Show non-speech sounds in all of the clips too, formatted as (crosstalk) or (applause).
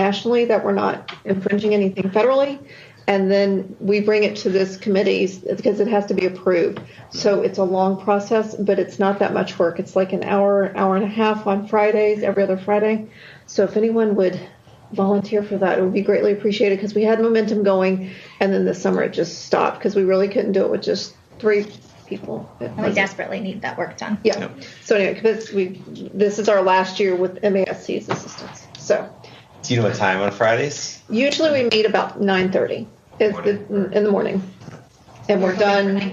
nationally that we're not infringing anything federally. And then we bring it to this committee because it has to be approved. So it's a long process, but it's not that much work. It's like an hour, hour and a half on Fridays, every other Friday. So if anyone would volunteer for that, it would be greatly appreciated because we had momentum going. And then this summer it just stopped because we really couldn't do it with just three people. It And we wasn't- desperately need that work done. yeah. Yep. So anyway, because we this is our last year with MASC's assistance. So Do you know what time on Fridays? usually we meet about nine thirty in the morning, and we're done.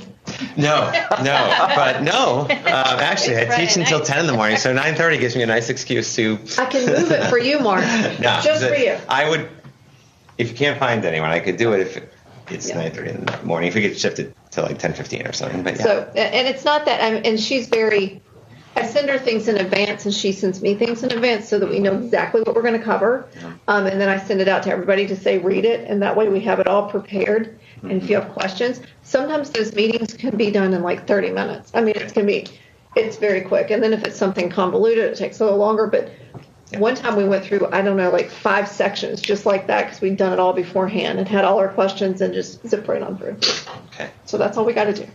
No, no, but (laughs) no. Um, actually, I It's Friday teach until night. ten in the morning, so nine thirty gives me a nice excuse (laughs) to. I can move it for you, Mark. No, just the- for you. I would, if you can't find anyone, I could do it if it's Yeah. nine thirty in the morning. If we could shift it to like ten fifteen or something, but yeah. So a- and it's not that. I'm, and she's very. I send her things in advance, and she sends me things in advance so that we know exactly what we're going to cover. Um, and then I send it out to everybody to say read it, and that way we have it all prepared. And if you have questions, sometimes those meetings can be done in like 30 minutes. I mean, it's going to be, it's very quick. And then if it's something convoluted, it takes a little longer. But one time we went through, I don't know, like five sections just like that because we'd done it all beforehand and had all our questions and just zip right on through. okay. So that's all we got to do.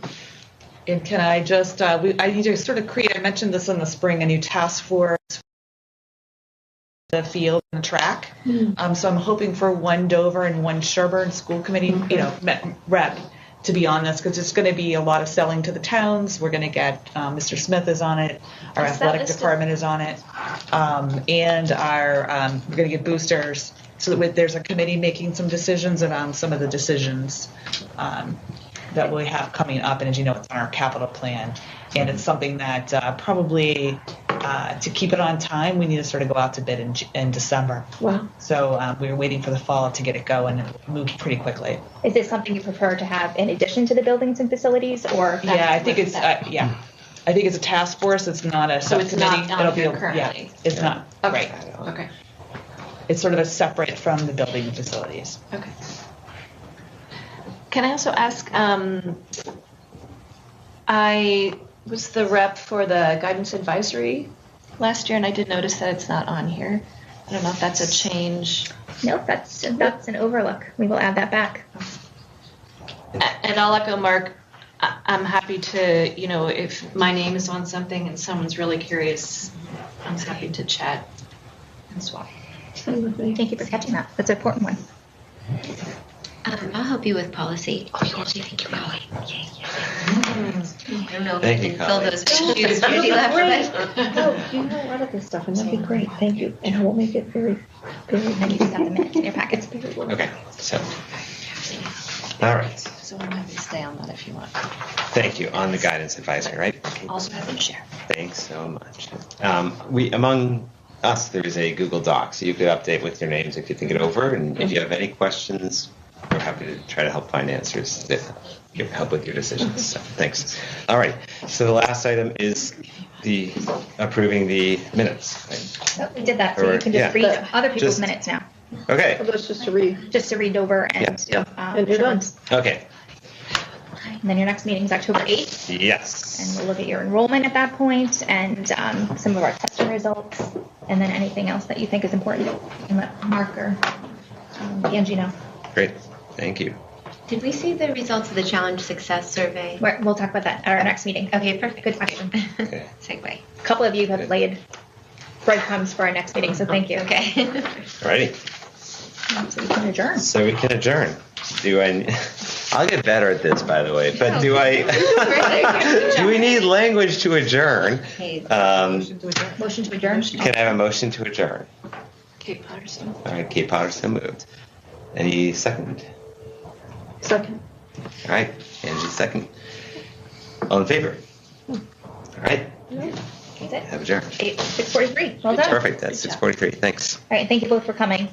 And can I just, uh, we, I need to sort of create, I mentioned this in the spring, a new task force for the field and the track. Um, so I'm hoping for one Dover and one Sherburne school committee, you know, me- rep to be on this because it's going to be a lot of selling to the towns. We're going to get, um, Mr. Smith is on it, our Is that athletic listed? department is on it, um, and our, um, we're going to get boosters. So that with, there's a committee making some decisions around some of the decisions um, that we have coming up, and as you know, it's on our capital plan, and it's something that uh, probably uh, to keep it on time, we need to sort of go out to bid in, in December. Wow. So um, we were waiting for the fall to get it going and it moved pretty quickly. Is this something you prefer to have in addition to the buildings and facilities, or? yeah, I think it's uh, yeah, I think it's a task force. It's not a So it's subcommittee. not on It'll here be a, currently? Yeah, it's not Okay. right. Okay. It's sort of a separate from the building and facilities. Okay. Can I also ask? Um, I was the rep for the guidance advisory last year, and I did notice that it's not on here. I don't know if that's a change. Nope, that's, that's an overlook. We will add that back. A- And I'll echo Mark. I- I'm happy to, you know, if my name is on something and someone's really curious, I'm happy to chat and swap. Thank you for catching that. That's an important one. Um, I'll help you with policy. Oh, you want to thank you, Mm-hmm. Colleen. Yeah, yeah. I don't know if Thank I you, can fill Colleen. those shoes when she left, but Oh, you know a lot of this stuff, and that'd be great. Thank you. And I will make it very, very. And you've got the minutes in (laughs) your packets. Okay. So. All right. (laughs) So I'm happy to stay on that if you want. Thank you on the guidance advisory, right? Also happy to share. Thanks so much. Um, we among us, there's a Google Doc, so you could update with your names if you think it over, and if you have any questions, we're happy to try to help find answers that give help with your decisions. So, thanks. All right. So the last item is the approving the minutes. right? Oh, We did that, so you can Yeah. just read other people's Just- minutes now, Okay. That's just to read. just to read over and. Yeah. um, And you're done. Sherburne's. Okay. And then your next meeting is October 8th. and Yes. we'll look at your enrollment at that point and um, some of our testing results, and then anything else that you think is important, and let Mark or um, Angie know. Great. Thank you. did we see the results of the challenge success survey? We're, we'll talk about that at our next meeting. Okay, perfect. Good question. Okay. Segue. (laughs) A couple of you have laid breadcrumbs for our next meeting, so thank you. Okay. Alrighty. So we can adjourn. So we can adjourn. Do I? (laughs) I'll get better at this, by the way. But do I? (laughs) do we need language to adjourn? Um, Motion to adjourn. can I have a motion to adjourn? Kate Patterson. All right, Kate Potter so moved. Any second? Second. All right, Angie second. All in favor? All right, That's it. have adjourned. Eight, 643. Well done. Perfect. That's six forty-three. Thanks. All right, thank you both for coming.